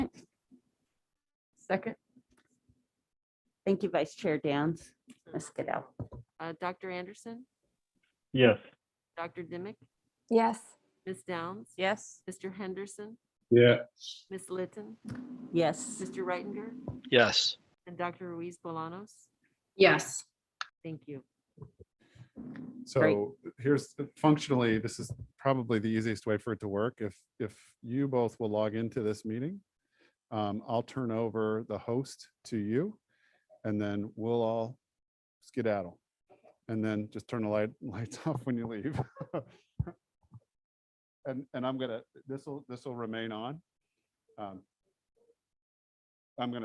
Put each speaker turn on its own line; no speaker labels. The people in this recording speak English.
Second.
Thank you, Vice Chair Downs. Ms. Goodell.
Uh, Dr. Anderson,
Yes.
Dr. Dimick,
Yes.
Ms. Downs.
Yes.
Mr. Henderson,
Yeah.
Ms. Litton,
Yes,
Mr. Reitinger,
yes,
and Dr. Ruiz Bolanos.
Yes.
Thank you.
So here's functionally, this is probably the easiest way for it to work. If, if you both will log into this meeting, um, I'll turn over the host to you and then we'll all skedaddle. And then just turn the light, lights off when you leave. And, and I'm gonna, this will, this will remain on. Um, I'm gonna